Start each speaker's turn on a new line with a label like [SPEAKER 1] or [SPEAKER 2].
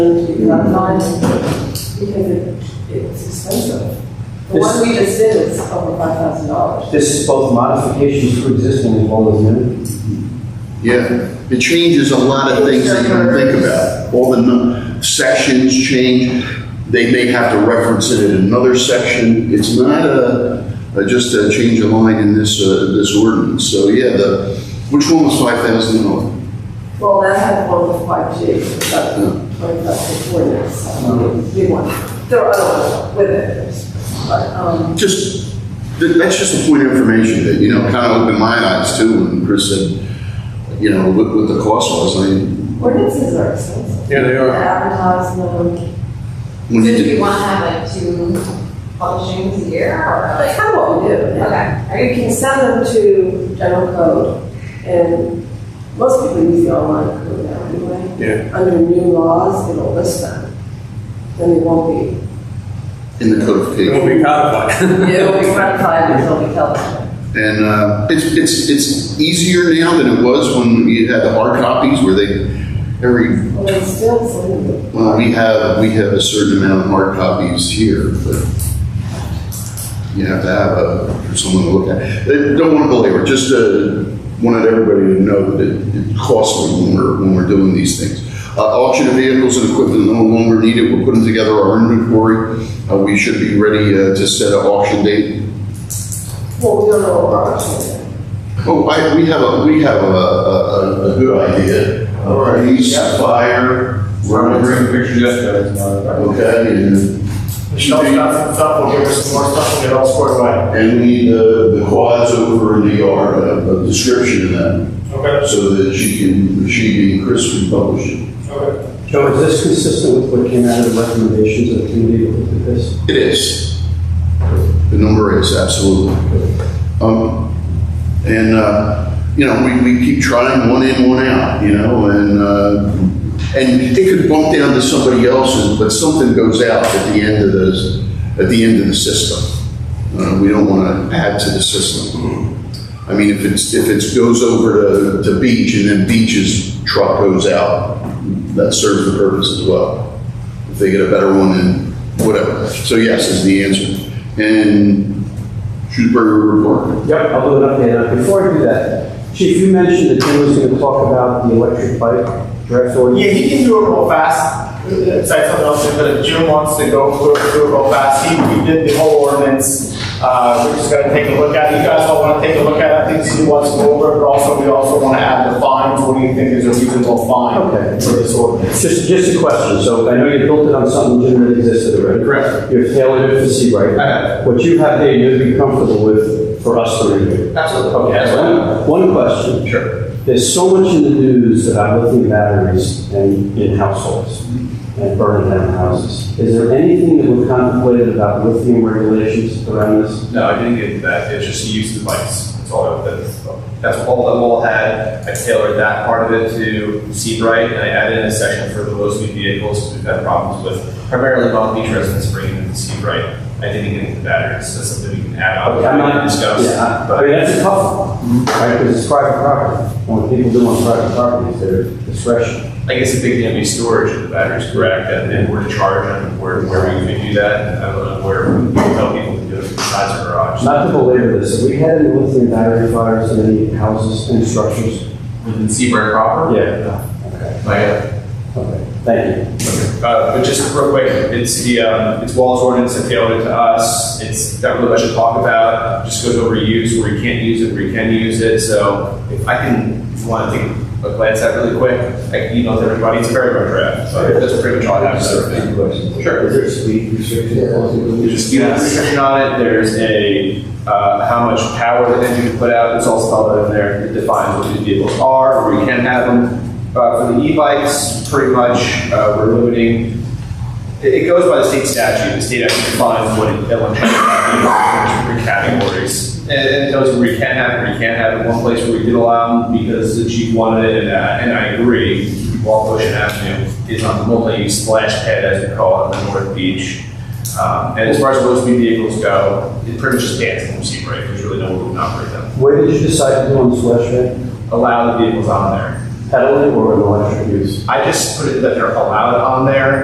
[SPEAKER 1] that line because it, it's expensive. The one we just did is over five thousand dollars.
[SPEAKER 2] This is both modifications to existing as well as new.
[SPEAKER 3] Yeah, it changes a lot of things that you don't think about. All the num- sections change, they may have to reference it in another section. It's not a, a- just a change of line in this, uh, this ordinance. So yeah, the, which one was five thousand dollars?
[SPEAKER 1] Well, that had one with five G, but twenty-five to forty, so we won. There are other ones with it, but, um,
[SPEAKER 3] Just, th- that's just a point of information that, you know, kind of opened my eyes too when Chris said, you know, what, what the cost was. I mean,
[SPEAKER 1] ordinances are expensive.
[SPEAKER 4] Yeah, they are.
[SPEAKER 1] Advertise them,
[SPEAKER 3] when you
[SPEAKER 5] So do
[SPEAKER 3] did-
[SPEAKER 5] you want to have like two publishings a year or
[SPEAKER 1] like,
[SPEAKER 5] like?
[SPEAKER 1] kind of what we do.
[SPEAKER 5] Okay.
[SPEAKER 1] You can send them to general code, and most people use the online code now anyway.
[SPEAKER 4] Yeah.
[SPEAKER 1] Under new laws, it'll list them, then it won't be.
[SPEAKER 3] in the codification.
[SPEAKER 4] It'll be codified.
[SPEAKER 1] It'll be ratified until we tell them.
[SPEAKER 3] And uh, it's, it's, it's easier now than it was when you had the hard copies where they, every,
[SPEAKER 1] Well, it's still something.
[SPEAKER 3] well, we have, we have a certain amount of hard copies here, but you have to have a, for someone to look at. I Don't want to belabor, just uh, wanted everybody to know that it costs me when we're, when we're doing these things. Uh, Auction of vehicles and equipment no longer needed, we're putting together our inventory. Uh, We should be ready uh, to set an auction date
[SPEAKER 1] Well, we don't know what our options are.
[SPEAKER 3] Oh, I, we have a, we have a, a, a- a good idea. Uh, Police, fire, running,
[SPEAKER 6] pictures yesterday.
[SPEAKER 3] okay, and,
[SPEAKER 6] Michelle's got some stuff, we'll give her some more stuff, we'll get it all squared away.
[SPEAKER 3] and we need the, the quads over in the yard, a, a description of
[SPEAKER 6] Okay,
[SPEAKER 3] that, so that she can, she and Chris can publish it.
[SPEAKER 6] okay.
[SPEAKER 2] Joe, is this consistent with what came out of the recommendations of the committee that looked at this?
[SPEAKER 3] It is. The number is, absolutely. Um, and, uh, you know, we, we keep trying one in, one out, you know, and, uh, and it could bump down to somebody else's, but something goes out at the end of the, at the end of the system. Uh, we don't want to add to the system. I mean, if it's, if it goes over to, to Beach and then Beach's truck goes out, that serves the purpose as well. If they get a better one, then whatever. So yes is the answer. And Shrewsbury report.
[SPEAKER 2] Yep, I'll do an update. Before I do that, Chief, you mentioned that Jim was going to talk about the electric bike draft order.
[SPEAKER 6] Yeah, he can do it real fast, it's like something else, but if Jim wants to go through it, do it real fast, he, he did the whole ordinance. Uh, we're just gonna take a look at it, you guys all wanna take a look at it, I think see what's go over, it, but also, we also wanna add the fines, what do you think is a reasonable
[SPEAKER 2] Okay.
[SPEAKER 6] fine for this ordinance?
[SPEAKER 2] Just, just a question. So I know you built it on something Jim that existed already.
[SPEAKER 4] Correct.
[SPEAKER 2] You're tailored to see right.
[SPEAKER 4] I have.
[SPEAKER 2] What you have there, you'd be comfortable with for us to review.
[SPEAKER 4] Absolutely. Okay, that's fine.
[SPEAKER 2] One one question.
[SPEAKER 4] Sure.
[SPEAKER 2] There's so much in the news about lithium batteries and in households and burning down houses. Is there anything that we've contemplated about lithium regulations around this?
[SPEAKER 7] No, I didn't get into that. It's just the use of the bikes. That's all I, that's, that's all that wall had. I tailored that part of it to Seabright and I added in a section for the low speed vehicles because we've had problems with primarily Long Beach residents bringing them to Seabright. I didn't get into the batteries. That's something we can add on
[SPEAKER 2] I'm not-
[SPEAKER 7] and discuss.
[SPEAKER 2] Yeah, I I
[SPEAKER 7] But
[SPEAKER 2] mean, that's a tough one, right, because it's private property. And When people do on private property, it's their discretion.
[SPEAKER 7] I guess the big thing would be storage of the batteries, correct? And and where to charge them, where, where we could do that. And I don't know where we can tell people to do it besides the garage.
[SPEAKER 2] Not to belabor this, have we had any lithium battery fires in any houses and structures?
[SPEAKER 7] Within Seabright proper?
[SPEAKER 2] Yeah. Okay,
[SPEAKER 7] Like, uh,
[SPEAKER 2] okay, thank you.
[SPEAKER 7] Uh, but just real quick, it's the, um, it's Wall's ordinance that failed it to us. It's not really much to talk about. Just goes over use, where you can't use it, where you can use it. So if I can, if you want to take a glance at it really quick, I can email it to everybody. It's a very rough draft. So that's pretty much all I have to say. Sure.
[SPEAKER 2] Is there speed restrictions?
[SPEAKER 7] There's a speed limit restriction on it. There's a, uh, how much power that engine can put out. It's all spelled out in there. It defines what these vehicles are, where you can have them. Uh, for the e-bikes, pretty much, uh, we're limiting it, it goes by the state statute. The state actually defines what it- electronic document is, different categories. And and it tells you where you can have it, where you can't have it. One place where we did allow them because the chief wanted it, and, uh, and I agree, Walt Ocean Avenue is on the multi-use splash pad, as we call it, on the North Beach. Um, and as far as low-speed vehicles go, it pretty much just bans them from Seabright. There's really no room to operate them.
[SPEAKER 2] Where did you decide to do on the slash pad?
[SPEAKER 7] Allow the vehicles on there.
[SPEAKER 2] Pedaling or an electric use?
[SPEAKER 7] I just put it that they're allowed on there